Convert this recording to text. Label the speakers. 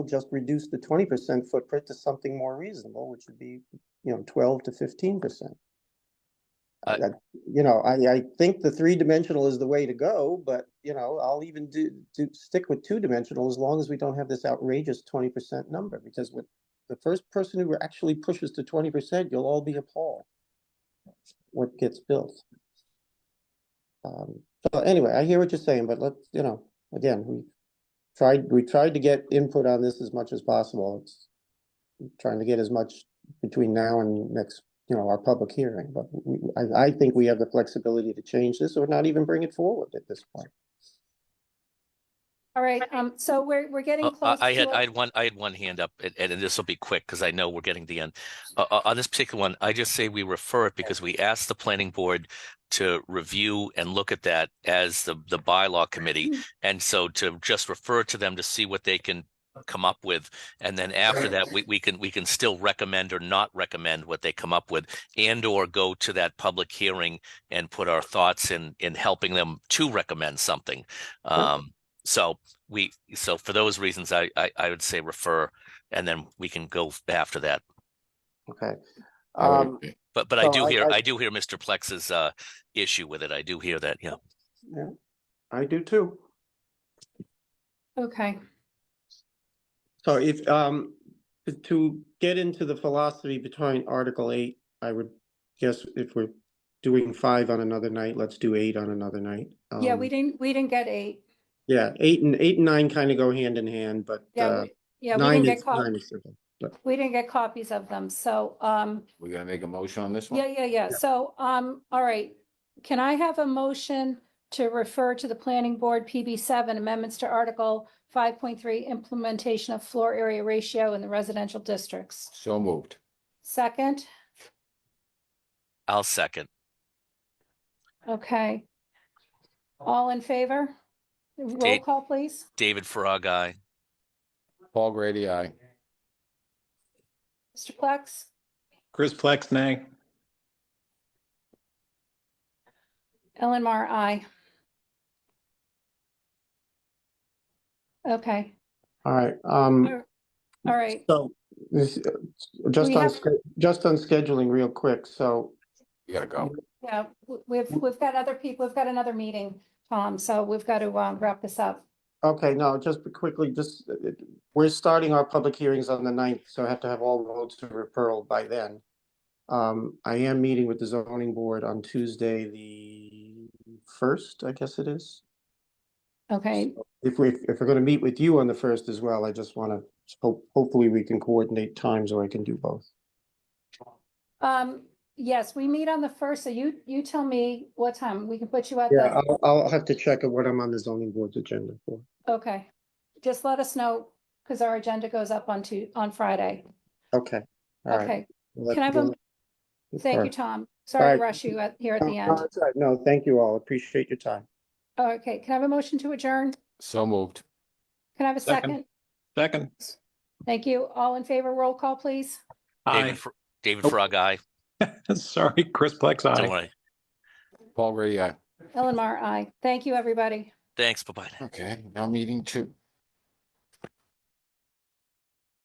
Speaker 1: just reduce the twenty percent footprint to something more reasonable, which would be, you know, twelve to fifteen percent.
Speaker 2: I-
Speaker 1: You know, I, I think the three-dimensional is the way to go, but, you know, I'll even do, do, stick with two-dimensional as long as we don't have this outrageous twenty percent number, because with the first person who actually pushes to twenty percent, you'll all be appalled what gets built. Um, so anyway, I hear what you're saying, but let's, you know, again, we tried, we tried to get input on this as much as possible. It's trying to get as much between now and next, you know, our public hearing, but we, I, I think we have the flexibility to change this or not even bring it forward at this point.
Speaker 3: All right, um, so we're, we're getting
Speaker 2: Oh,
Speaker 3: close.
Speaker 2: I I had,
Speaker 3: to
Speaker 2: I
Speaker 3: our-
Speaker 2: had one, I had one hand up, and, and this will be quick, because I know we're getting to the end. Uh, uh, on this particular one, I just say we refer it because we asked the planning board to review and look at that as the, the bylaw committee.
Speaker 3: Mm.
Speaker 2: And so to just refer to them to see what they can come up with. And then after that, we, we can, we can still recommend or not recommend what they come up with and or go to that public hearing and put our thoughts in, in helping them to recommend something. Um, so we, so for those reasons, I, I, I would say refer, and then we can go f- after that.
Speaker 1: Okay.
Speaker 4: I would
Speaker 1: Um,
Speaker 4: agree.
Speaker 2: But, but I
Speaker 1: Well,
Speaker 2: do
Speaker 1: I-
Speaker 2: hear,
Speaker 1: I-
Speaker 2: I do hear Mr. Plex's, uh, issue with it. I do hear that, yeah.
Speaker 1: yeah, I do too.
Speaker 3: Okay,
Speaker 1: So if, um, to- to get into the philosophy behind Article eight, I would guess if we're doing five on another night, let's do eight on another night.
Speaker 3: yeah,
Speaker 1: Um,
Speaker 3: we didn't, we didn't get eight.
Speaker 1: Yeah, eight and eight and nine kind of go hand in hand, but
Speaker 3: Yeah,
Speaker 1: uh,
Speaker 3: we- yeah, we
Speaker 1: nine
Speaker 3: didn't get
Speaker 1: is
Speaker 3: cop,
Speaker 1: nine is simple.
Speaker 3: we didn't get copies of them, so, um,
Speaker 4: We're gonna make a motion on this
Speaker 1: Oh,
Speaker 4: one?
Speaker 3: yeah, yeah, yeah, so, um, all right. Can I have a motion to refer to the planning board PB seven amendments to article five point three implementation of floor area ratio in the residential districts?
Speaker 4: So moved.
Speaker 3: Second,
Speaker 2: I'll second.
Speaker 3: okay. All in favor? Roll
Speaker 2: Date.
Speaker 3: call, please.
Speaker 2: David Frog, aye.
Speaker 4: Paul Grady, aye.
Speaker 3: Mr. Plex?
Speaker 5: Chris Plex, nay.
Speaker 3: Ellen Mar, aye. Okay,
Speaker 1: All right, um,
Speaker 3: all right.
Speaker 1: so this, uh, just
Speaker 3: We
Speaker 1: on,
Speaker 3: have-
Speaker 1: sch- just on scheduling real quick, so
Speaker 4: You gotta go.
Speaker 3: Yeah, w- we've, we've got other people, we've got another meeting, Tom, so we've got to um, wrap this up.
Speaker 1: Okay, no, just quickly, just, uh, it- we're starting our public hearings on the ninth, so I have to have all roads to referral by then. Um, I am meeting with the zoning board on Tuesday, the first, I guess it is.
Speaker 3: Okay,
Speaker 1: If we, if we're gonna meet with you on the first as well, I just wanna, hope, hopefully we can coordinate times or I can do both.
Speaker 3: um, yes, we meet on the first, so you, you tell me what time, we can put you at
Speaker 1: Yeah,
Speaker 3: the,
Speaker 1: I'll, I'll have to check what I'm on the zoning board's agenda for.
Speaker 3: okay. Just let us know, because our agenda goes up on Tu- on Friday.
Speaker 1: Okay, all right.
Speaker 3: Okay,
Speaker 1: Well,
Speaker 3: can I have
Speaker 1: that's-
Speaker 3: thank
Speaker 1: all
Speaker 3: you,
Speaker 1: right.
Speaker 3: Tom. Sorry
Speaker 1: right.
Speaker 3: to rush you at- here at the
Speaker 1: No,
Speaker 3: end.
Speaker 1: that's all right. Uh, No, thank you all, appreciate your time.
Speaker 3: Okay, can I have a motion to adjourn?
Speaker 4: So moved.
Speaker 3: Can I have a
Speaker 5: Second.
Speaker 3: second?
Speaker 5: Second.
Speaker 3: Thank you. All in favor, roll call, please.
Speaker 5: Aye.
Speaker 2: David, Fr- David
Speaker 5: Nope.
Speaker 2: Frog, aye.
Speaker 5: Sorry, Chris Plex,
Speaker 2: Don't
Speaker 5: aye.
Speaker 2: worry.
Speaker 4: Paul Grady, aye.
Speaker 3: Ellen Mar, aye. Thank you, everybody.
Speaker 2: Thanks, bye-bye.
Speaker 4: Okay, now meeting two.